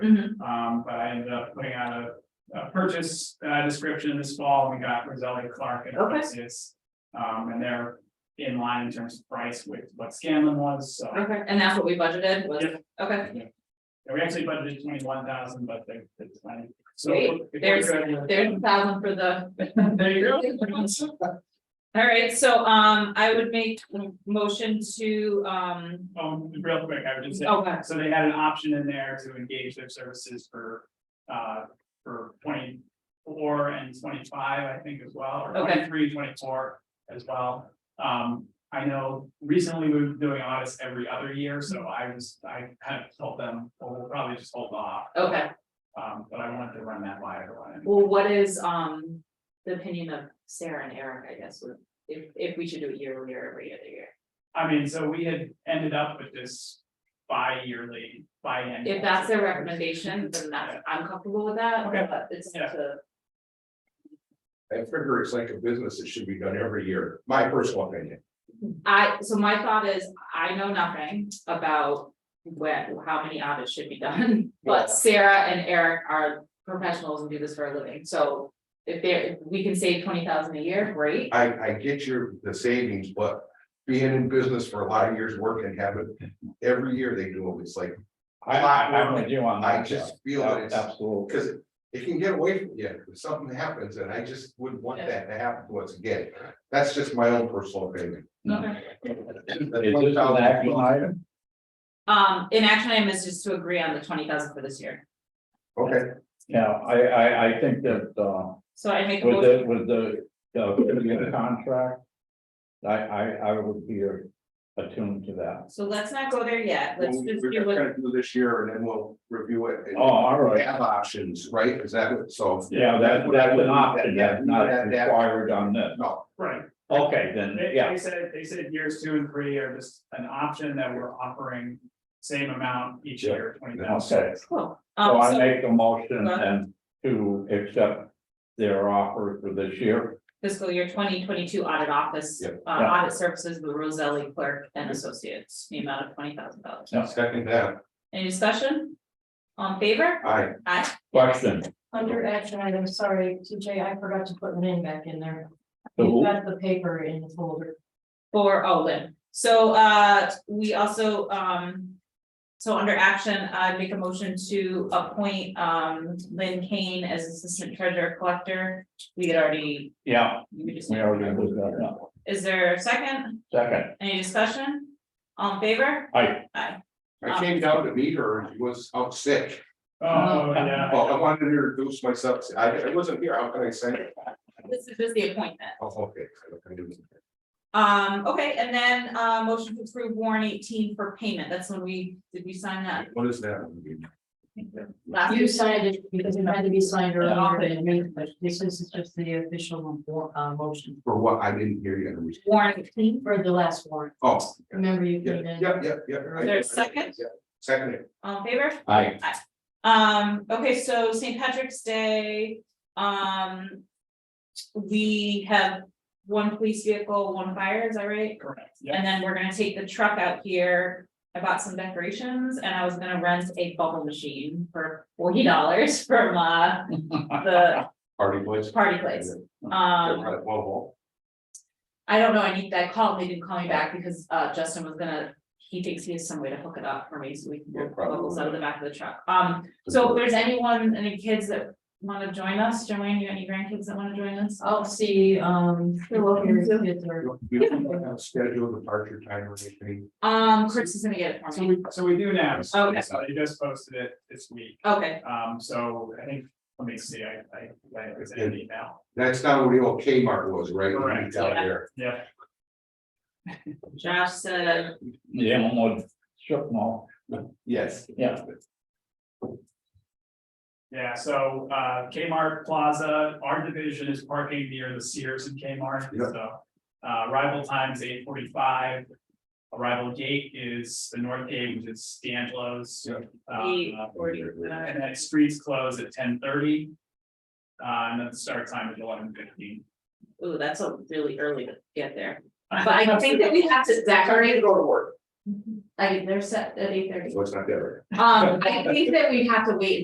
Mhm. Um, but I ended up putting out a, a purchase, uh, description this fall, we got Roselli Clark and Okay. Associates. Um, and they're in line in terms of price with what Scanlon was, so. Okay, and that's what we budgeted was, Yep. okay, And we actually budgeted twenty-one thousand, but they, they, decided- so. Great. if we're There's- good- there's a thousand for the, There you go. all right, so um I would make a motion to um. Um, real quick, I would just say, Okay, so they had an option in there to engage their services for, uh, for twenty-four and twenty-five, I think as well, or Okay. 23, 24 as well. Um, I know recently we were doing audits every other year, so I was, I kind of told them, well, we'll probably just hold off. okay, Um, but I wanted to run that by everyone. well, what is um the opinion of Sarah and Eric, I guess, would- if if we should do it yearly or every other year? I mean, so we had ended up with this bi-yearly, biannual. If that's their recommendation, then that's, I'm comfortable with that, Okay. but it's Yeah. to, I figure it's like a business, it should be done every year, my personal opinion. I, so my thought is, I know nothing about when, how many audits should be done, Yeah. but Sarah and Eric are professionals and do this for a living, so if they're, if we can save twenty thousand a year, great, I, I get your, the savings, but being in business for a lot of years, working, and having, every year they do it, it's like, I, I, I'm with you on I that, Jeff. just feel that it's, Absolutely. because it can get away from you, if something happens, and I just wouldn't want that to happen to us again. That's just my own personal opinion. Okay. Is this an action item? Um, an action item is just to agree on the twenty thousand for this year, Okay, Yeah, I, I, I think that, uh, so I make a with motion, the, with the, uh, with the contract. I, I, I would be attuned to that. so let's not go there yet, let's Well, just we're do what, gonna do this year, and then we'll review it. and Oh, all We right. have options, right? Is that what, so? Yeah, that, that's an option, Yeah, that's not that- that- required on this. No, Right, Okay, then, They, yeah, they said, they said years two and three are just an option that we're offering same amount each Yeah. year, twenty okay. thousand. cool. So Um, I so make a motion Go ahead. and to accept their offer for this year. fiscal year twenty twenty-two audit office, Yeah. uh, Yeah. audit services, with Roselli clerk and associates, the amount of twenty thousand dollars. second that, Any discussion? On favor? I. Aye. Question, Under action item, sorry, TJ, I forgot to put Lynn back in there. The who? You've got the paper in the folder. For, oh, Lynn, so, uh, we also, um. So under action, I make a motion to appoint, um, Lynn Kane as Assistant Treasurer Collector. We had already, yeah, we just, we already did that, no. is there a second? Second, Any discussion? On favor? I, I came down to meet her and she was out sick. Oh, yeah, Well, I wanted to introduce myself. I, I wasn't here. How can I say? it? This is just the appointment. Oh, okay. I do. Um, okay, and then, uh, motion to approve warrant eighteen for payment. That's when we, did we sign that What is that? last? You signed it because it had to be signed earlier than me, but this is just the official uh, motion For what? I didn't hear you. Warrant eighteen, for the last warrant. Oh, Remember you yeah, came in. yeah, yeah, yeah. right. There's second? Yeah, Second. on favor? I, Um, okay, so St. Patrick's Day, um. We have one police vehicle, one fire, is that right? correct, yeah, And then we're gonna take the truck out here. I bought some decorations and I was gonna rent a bubble machine for forty dollars from uh the Party place. party place. Yeah, Um, right, well, well, I don't know, I need, I called, they didn't call me back because uh Justin was gonna, he thinks he has some way to hook it up for me, so we can Yeah, get probably. bubbles out of the back of the truck. Um, so if there's anyone, any kids that wanna join us, Joanne, you got any grandkids that wanna join us? I'll see, um, You're welcome to. your kids are- We don't have scheduled departure time or anything. Um, Chris is gonna get it for so me. we, so we do now, so Okay. you just posted it this week, Okay, um, so I think, let me see, I, I, I it's in an email, That's not where the old Kmart was, right? Correct. Down there. yeah. Josh said, the Elmwood strip mall, Yes. Yeah. Yeah, so, uh, Kmart Plaza, our division is parking near the Sears and Kmart, Yeah. so. Uh, arrival time is eight forty-five. Arrival gate is the north gate, which is D'Angelo's. Yeah. eight Uh, forty, And then streets close at ten thirty. Uh, and then the start time is eleven fifteen. ooh, that's a really early to get there. But I think that we have to decorate, go to work. I, they're set at eight thirty. so it's not there. Um, I think that we have to wait